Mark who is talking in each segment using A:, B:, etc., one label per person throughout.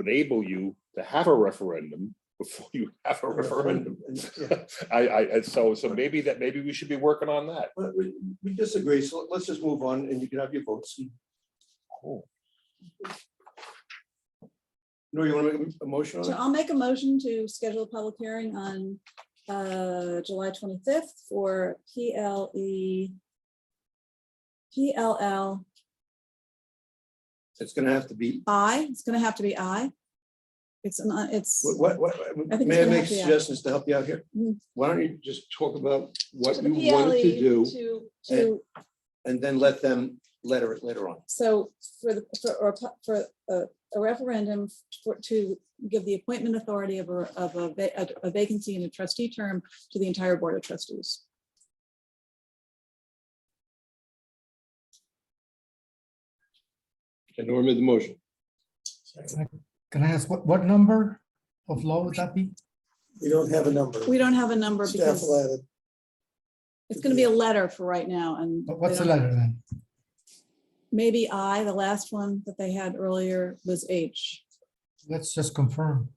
A: enable you to have a referendum before you have a referendum. I, I, and so, so maybe that, maybe we should be working on that.
B: But we, we disagree, so let's just move on and you can have your votes. No, you want to make a motion on
C: So
B: it?
C: I'll make a motion to schedule a public hearing on uh, July 25th for E, PLE PLLI,
B: It's gonna have to be,
C: it's going to have to be I. It's, an. uh, it's,
B: what, what, what-
C: it's
B: may I
C: gonna
B: make
C: have to be out.
B: suggestions to help you out here?
C: Mm.
B: Why don't you just talk about what
C: So the
B: you wanted to
C: PLE
B: do
C: to- to-
B: and then let them letter it later on?
C: So for the, for, or pu- for a a referendum for, to give the appointment authority of a, of a va- a- a vacancy in a trustee term to the entire board of trustees.
B: And Norm made the motion.
D: Can I ask, what, what number of law would that be?
E: We don't have a number.
C: We don't have a number
E: Staff will
C: because
E: add it.
C: it's gonna be a letter for right now and.
D: What- What's
C: they
D: the
C: don't-
D: letter then?
C: Maybe I, the last one that they had earlier was H.
D: Let's just confirm.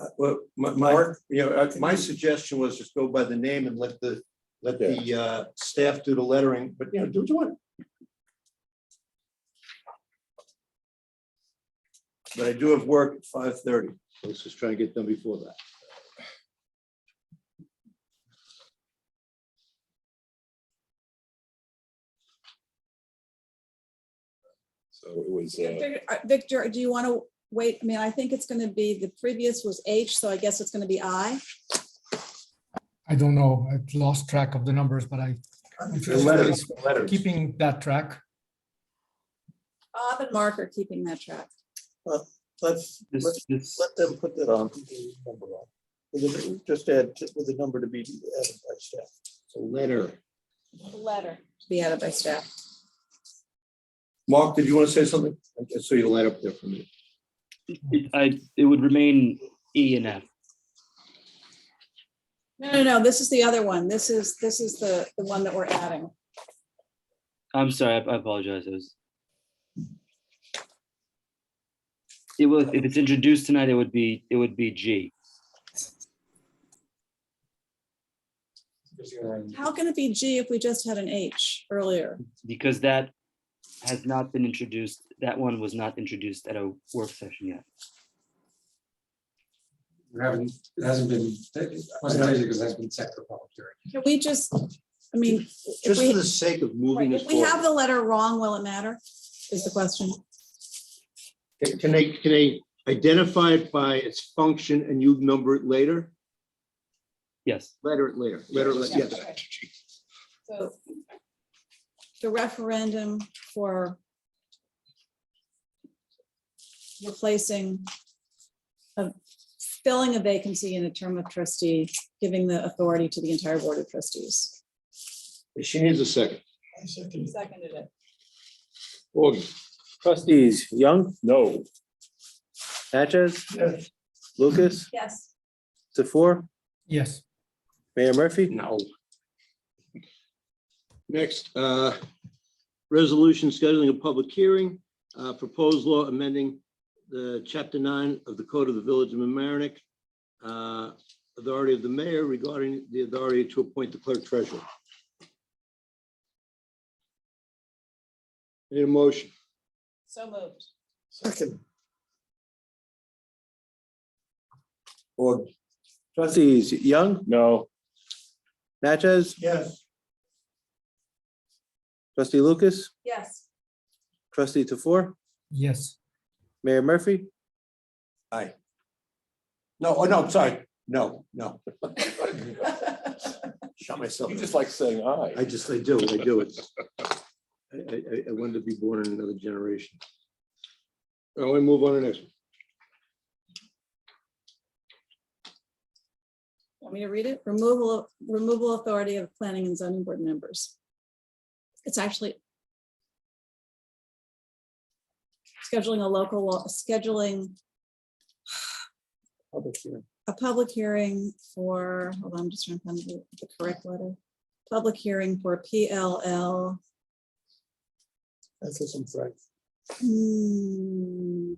B: Uh, Well, my, my, you know, uh, my suggestion was just go by the name and let the, let the uh, staff do the lettering, but you know, do what you want. But I do have work at five thirty. Let's just try and get done before that.
A: So it was, uh,
C: Victor, uh, Victor, do you want to wait? I mean, I think it's gonna be, the previous was H, so I guess it's gonna be I.
D: I don't know, I've lost track of the numbers, but I, if
B: The
D: you're
B: letters, the letters.
D: keeping that track,
C: Bob and Mark are keeping that track.
E: Let's, let's, let them put that
B: Um,
E: on. the number on. Because it- Just add t- with the number to be added by staff.
B: Letter.
C: Letter. to Be added by staff.
B: Mark, did you want to say something? I just saw you light up there for me.
F: It, I, it would remain E and F.
C: No, no, no, this is the other one. This is, this is the, the one that we're adding.
F: I'm sorry, I I apologize. It was. It will, if it's introduced tonight, it would be, it would be G.
C: How can it be G if we just had an H earlier?
F: Because that has not been introduced, that one was not introduced at a work session yet.
G: We haven't, it hasn't been, it wasn't taken because it hasn't been set for public hearing.
C: Can we just, I mean, if
B: Just for
C: we,
B: the sake of moving this
C: if we have
B: forward.
C: the letter wrong, will it matter? Is the question.
B: Can- Can they, can they identify it by its function and you number it later?
F: Yes,
B: Letter it later, letter, it later, yes.
C: So The referendum for replacing, a- filling a vacancy in a term of trustee, giving the authority to the entire board of trustees.
B: She needs a second.
C: Seconded it.
B: Augie.
H: Trustees Young,
A: no,
H: Natchez, Lucas,
C: Yes.
H: Tefor,
D: yes.
H: Mayor Murphy.
B: No. Next, uh, resolution scheduling a public hearing, uh, proposed law amending the chapter nine of the Code of the Village of Mamaroneck, uh, authority of the mayor regarding the authority to appoint the clerk treasurer. Need a motion?
C: So moved.
E: Second,
B: Or.
H: Trustees Young,
A: no,
H: Natchez,
E: yes,
H: trustee Lucas,
C: Yes.
H: trustee Tefor,
D: Yes,
H: Mayor Murphy.
B: No, oh, no, I'm sorry. No, no. Shot myself.
A: you just like saying
B: I
A: aye.
B: just, I do, I do. It's, I, I, I- I wanted to be born in another generation. I want to move on to the next. one.
C: Want me to read it? Removal, of removal authority of planning and zoning board members. It's actually scheduling a local law, scheduling
E: public hearing.
C: a public hearing for, hold on, I'm just trying to find the the correct letter. Public hearing for PLL.
E: That's just in fact.
C: hmm,